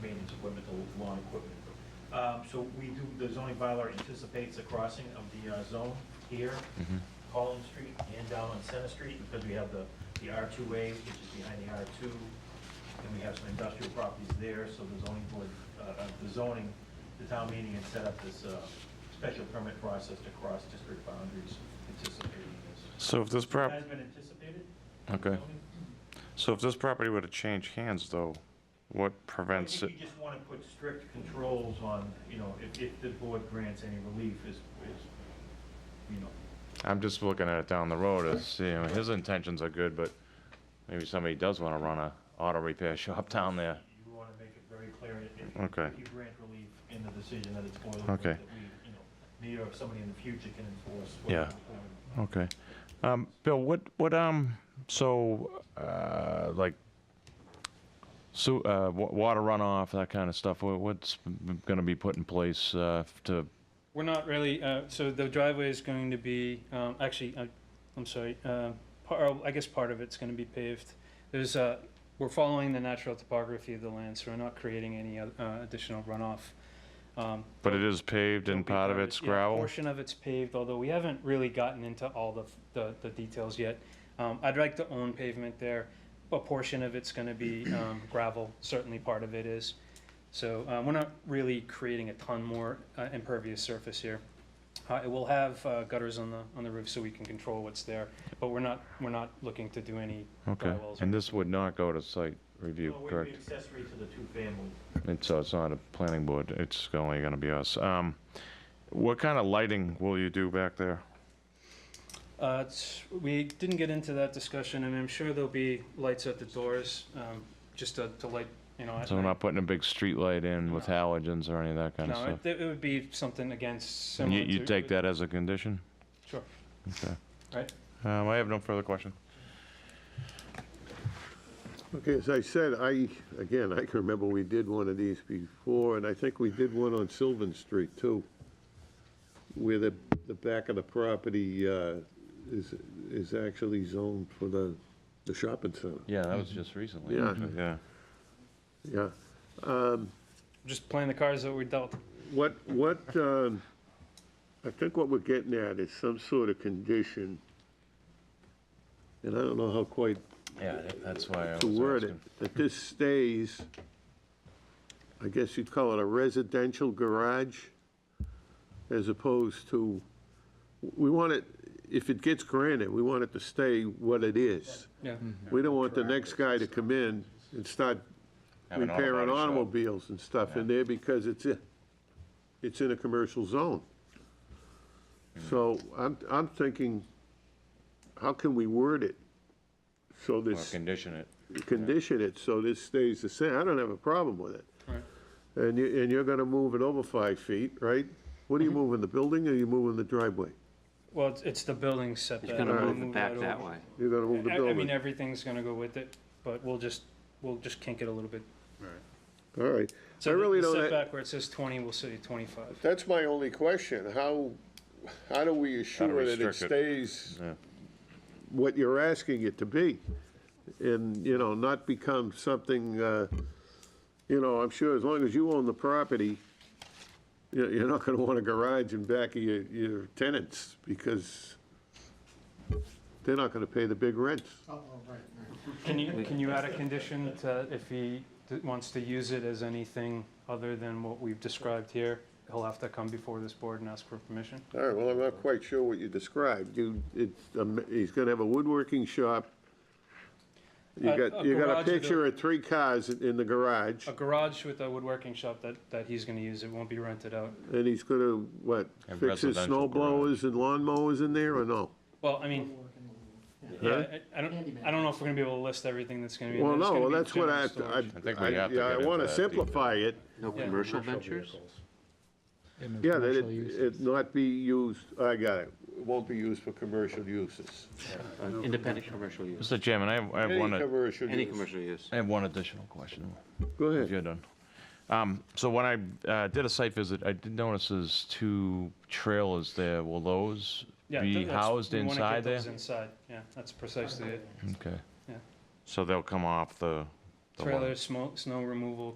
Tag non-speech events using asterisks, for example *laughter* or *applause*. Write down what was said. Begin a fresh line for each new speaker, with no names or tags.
maintenance equipment to lawn equipment. Um, So we do, the zoning bylaw anticipates the crossing of the uh, zone here,
Mm-hmm.
Collins Street and down on Center Street, because we have the, the R2A, which is behind the R2, and we have some industrial properties there, so the zoning board, uh, uh, the zoning, the town meeting had set up this uh, special permit process to cross district boundaries anticipating this.
So if this
It
prop,
has been anticipated.
okay,
zoning.
so if this property were to change hands, though,
I
what prevents it?
think you just want to put strict controls on, you know, if, if the board grants any relief is, is, you know,
I'm just looking at it down the road, as, you know, his intentions are good, but maybe somebody does want to run a auto repair *laughs* shop down there.
you want to make it very clear if, if
Okay.
you grant relief in the decision that it's boilerplate.
Okay.
That we, you know, me or somebody in the future can enforce. what
Yeah.
we're doing.
Okay. Um, Bill, what, what, um, so, uh, like, so, uh, wa- water runoff, that kind of stuff, wha- what's gonna be put in place, uh, to,
We're not really, uh, so the driveway is going to be, um, actually, I- I'm sorry, uh, par- or I guess part of it's gonna be paved. There's, uh, we're following the natural topography of the land, so we're not creating any oth- uh, additional runoff. Um,
but it is paved and
there'll be
part of it's
yeah, a
gravel?
Portion of it's paved, although we haven't really gotten into all the, the, the details yet. Um, I'd like to own pavement there. A portion of it's gonna be, um, gravel, certainly part of it is. So, uh, we're not really creating a ton more uh, impervious surface here. Uh, it will have uh, gutters on the, on the roof so we can control what's there, but we're not, we're not looking to do any
Okay,
drywells.
and this would not go to site review,
No, we'd be
correct?
accessory to the two-family.
It's, so it's not a planning board, it's only gonna be us. Um, what kind of lighting will you do back there?
Uh, it's, we didn't get into that discussion, and I'm sure there'll be lights at the doors, um, just to, to light, you know. at
So we're
night.
not putting a big street light in with
No.
halogens or any of that kind of
No,
stuff?
it, it would be something against
And
similar
you,
to.
you take that as a condition?
Sure.
Okay.
Right.
Um, I have no further question.
Okay, as I said, I, again, I can remember we did one of these before, and I think we did one on Sylvan Street, too, where the, the back of the property uh, is, is actually zoned for the, the shopping center,
Yeah, that was just recently.
Yeah.
actually, Yeah.
yeah.
Just playing the cards that we dealt.
What, what, um, I think what we're getting at is some sort of condition, and I don't know how quite
Yeah, that- that's why I was
to word
asking.
it, that this stays, I guess you'd call it a residential garage, as opposed to, we want it, if it gets granted, we want it to stay what it is.
Yeah.
We don't want the next guy to come in and start
Have an auto
repairing
body shop.
automobiles and stuff in there because it's, a- it's in a commercial zone.
Mm.
So I'm, I'm thinking, how can we word it so
Well,
this
condition it.
condition it so this stays the same. I don't have a problem with it.
Right.
And you, and you're gonna move it over five feet, right? What
Mm-hmm.
are you moving, the building, or are you moving the driveway?
Well, it's, it's the building setback.
He's gonna
We'll
move it back
over.
that way.
You're gonna move the
I, I mean,
building?
everything's gonna go with it, but we'll just, we'll just kink it a little bit.
All right. I
So the-
really
the
don't,
Setback where it says twenty, we'll say twenty-five.
that's my only question. How, how do we assure that it
restrict it.
stays
Yeah.
what you're asking it to be? And, you know, not become something, uh, you know, I'm sure as long as you own the property, you- you're not gonna want a garage in back of your, your tenants, because they're not gonna pay the big rents.
Can you, can you add a condition to, if he d- wants to use it as anything other than what we've described here, he'll have to come before this board and ask for permission?
All right, well, I'm not quite sure what you described. You, it's, um, he's gonna have a woodworking shop. You
A-
got,
a
you got a
garage with a-
picture of three cars in in the garage,
A garage with a woodworking shop that, that he's gonna use, it won't be rented out.
and he's gonna, what,
A
fix his
residential
snow blowers and lawn mowers in there, or no?
Well, I mean, yeah, I I don't, I don't know if we're gonna be able to list everything that's gonna be. in
Well,
there. It's
no,
gonna
well,
be
that's what
general
I, have to- I,
storage.
I think we
I,
have to
yeah,
get
I
into
wanna
that detail.
simplify it,
No
Yeah.
commercial ventures?
yeah, that it, it not be used, I got it, It won't be used for commercial uses.
Independent commercial use,
Mr. Chairman, I have, I have
Any
one, ad-
commercial
any
use.
commercial use.
I have one additional question.
Go
If
ahead.
you're done. Um, so when I, uh, did a site visit, I did notice there's two trailers there. Will those
Yeah,
be
th- that's-
housed
we wanna get
inside there?
those Inside, yeah, that's precisely it.
Okay.
Yeah.
So they'll come off the. the lot.
Trailer, smoke, snow removal,